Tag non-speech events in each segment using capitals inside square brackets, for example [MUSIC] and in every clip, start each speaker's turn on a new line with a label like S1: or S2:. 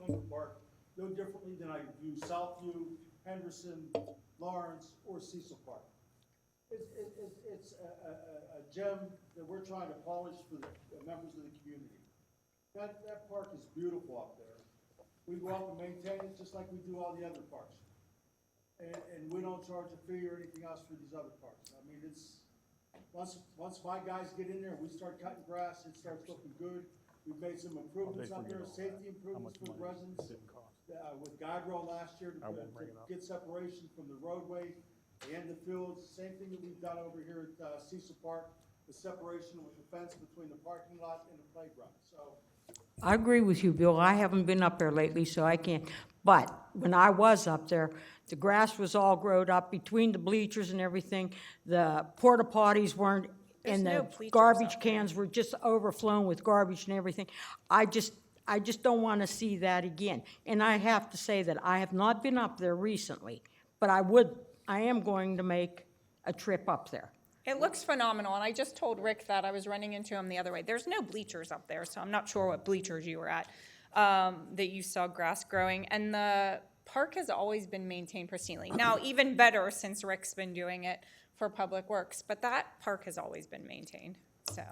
S1: Winter Park no differently than I view Southview, Henderson, Lawrence, or Cecil Park. It's, it- it's, it's a, a, a- a gem that we're trying to polish for the the members of the community. That, that park is beautiful up there. We go out and maintain it just like we do all the other parks. And, and we don't charge a fee or anything else for these other parks. I mean, it's, once, once my guys get in there, we start cutting grass, it starts looking good. We've made some improvements up there, safety improvements for the residents. Uh, with guardrail last year to,
S2: I won't
S1: to
S2: bring it up.
S1: get separation from the roadway and the fields. Same thing that we've done over here at uh, Cecil Park, the separation with the fence between the parking lot and the playground. So,
S3: I agree with you, Bill. I haven't been up there lately, so I can't. But when I was up there, the grass was all growed up between the bleachers and everything. The porta potties weren't, and
S4: There's no
S3: the
S4: bleachers
S3: garbage
S4: up
S3: cans were just overflowing with garbage and everything. I just, I just don't want to see that again. And I have to say that I have not been up there recently, but I would, I am going to make a trip up there.
S4: It looks phenomenal, and I just told Rick that I was running into him the other way. There's no bleachers up there, so I'm not sure what bleachers you were at, um, that you saw grass growing. And the park has always been maintained
S2: [CLEARS THROAT]
S4: pristinely. Now, even better since Rick's been doing it for Public Works, but that park has always been maintained, so.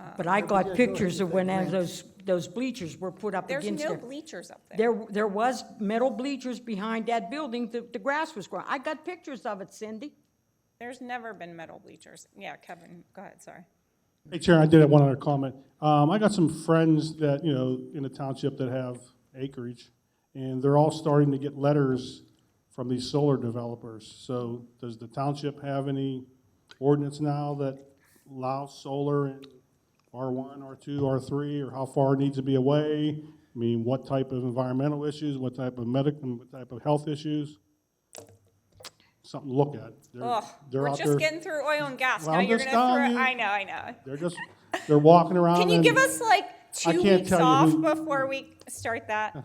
S4: Uh,
S3: But I got pictures of when those, those bleachers were put up
S4: There's
S3: against
S4: no
S3: there.
S4: bleachers up there.
S3: There, there was metal bleachers behind that building, the, the grass was growing. I got pictures of it, Cindy.
S4: There's never been metal bleachers. Yeah, Kevin, go ahead, sorry.
S2: Hey, Chair, I did have one other comment. Um, I got some friends that, you know, in the township that have acreage, and they're all starting to get letters from these solar developers. So does the township have any ordinance now that allows solar in R1, R2, R3, or how far it needs to be away? I mean, what type of environmental issues, what type of medical, what type of health issues? Something to look at. They're-
S4: Ugh,
S2: they're
S4: we're
S2: out
S4: just
S2: there-
S4: getting through oil and gas.
S2: Well,
S4: Now
S2: I'm
S4: you're
S2: just
S4: gonna throw,
S2: telling you.
S4: I know, I know.
S2: They're just, they're walking around.
S4: Can you
S2: and-
S4: give us like
S2: I
S4: two
S2: can't
S4: weeks
S2: tell you
S4: off
S2: who-
S4: before we start that?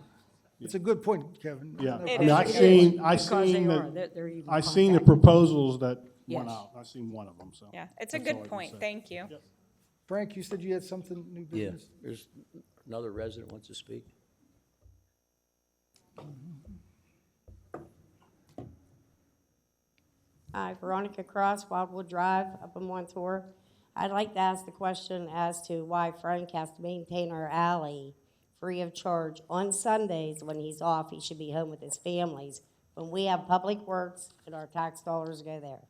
S5: It's a good point, Kevin.
S2: Yeah, I
S4: It
S2: mean,
S4: is,
S2: I
S4: it
S2: seen, I
S3: Because they
S2: seen
S3: are, they're- they're
S2: the,
S3: even
S2: I seen the
S3: contacted.
S2: proposals that went
S3: Yes.
S2: out. I seen one of them, so.
S4: Yeah, it's a
S2: That's all I
S4: good
S2: can
S4: point,
S2: say.
S4: thank you.
S5: Frank, you said you had something new
S6: Yeah,
S5: business?
S6: there's another resident wants to speak.
S7: Hi, Uh, Veronica Cross, Wildwood Drive, up in Montour. I'd like to ask the question as to why Frank has to maintain our alley free of charge on Sundays when he's off. He should be home with his families. When we have public works and our tax dollars go there.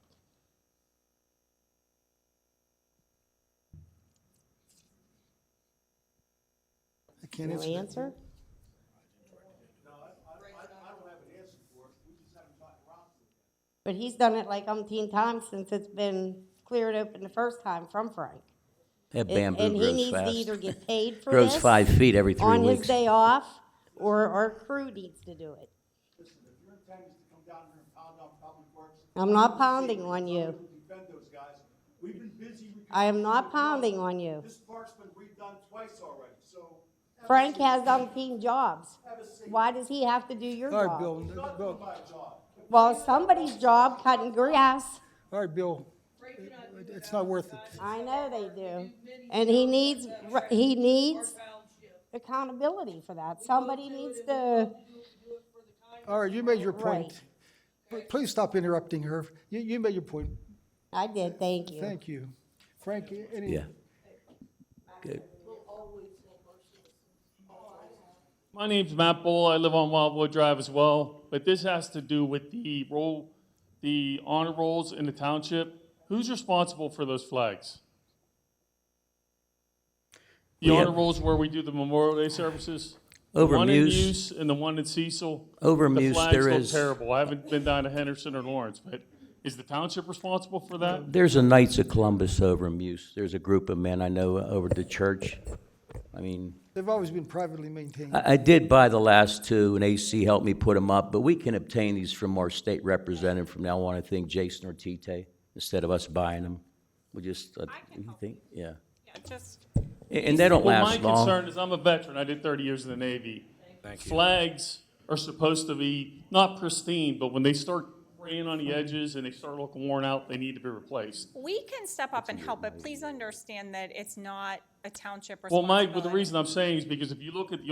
S5: I can't
S7: No
S5: answer. that.
S7: answer?
S1: no, I, I, I I don't have an answer for it. We just haven't gotten around to it.
S7: But he's done it like umpteen times since it's been cleared open the first time from Frank.
S6: That
S7: And-
S6: bamboo
S7: And he
S6: grows
S7: needs to either
S6: fast. [LAUGHS]
S7: get paid for
S6: Grows
S7: this
S6: five feet every three
S7: On his
S6: weeks.
S7: day off, or our crew needs to do it.
S1: Listen, if your intent is to come down here and pound on public works.
S7: I'm not pounding on you.
S1: Defend those guys. We've been busy.
S7: I am not pounding on you.
S1: This park's been redone twice already, so. have a
S7: Frank
S1: seat.
S7: has umpteen jobs.
S1: Have a seat.
S7: Why does he have to do your
S5: All right,
S7: job?
S5: Bill,
S1: Not doing
S5: Bill,
S1: my job.
S7: Well, somebody's job cutting grass.
S5: all right, Bill, it's not worth it.
S7: I know they do. And he needs, he needs accountability for that. Somebody needs to,
S5: All right, you made your point.
S7: Right.
S5: But Please stop interrupting her. You, you made your point.
S7: I did, thank you.
S5: Thank you. Frank, any?
S6: Yeah. Good.
S8: My name's Matt Bull. I live on Wildwood Drive as well, but this has to do with the roll, the honor rolls in the township. Who's responsible for those flags? The
S6: We
S8: honor
S6: have-
S8: rolls where we do the Memorial Day services? The
S6: Over
S8: one in
S6: Muse.
S8: Muse And the one in Cecil?
S6: Over
S8: The
S6: Muse,
S8: flags
S6: there
S8: look
S6: is-
S8: Terrible. I haven't been down to Henderson or Lawrence, but is the township responsible for that?
S6: There's a Knights of Columbus over in Muse. There's a group of men I know over at the church. I mean,
S5: They've always been privately maintained.
S6: I, I did buy the last two, and AC helped me put them up, but we can obtain these from our state representative from now on, I think Jason Ortite, instead of us buying them. We just, uh, you think, yeah.
S4: Yeah, just,
S6: And, and they don't
S8: Well,
S6: last
S8: My
S6: long.
S8: concern is I'm a veteran. I did 30 years in the Navy. Flags are supposed to be not pristine, but when they start fraying on the edges and they start looking worn out, they need to be replaced.
S4: we can step up and help, but please understand that it's not a township
S8: Well, my,
S4: responsibility.
S8: well, the reason I'm saying is because if you look at the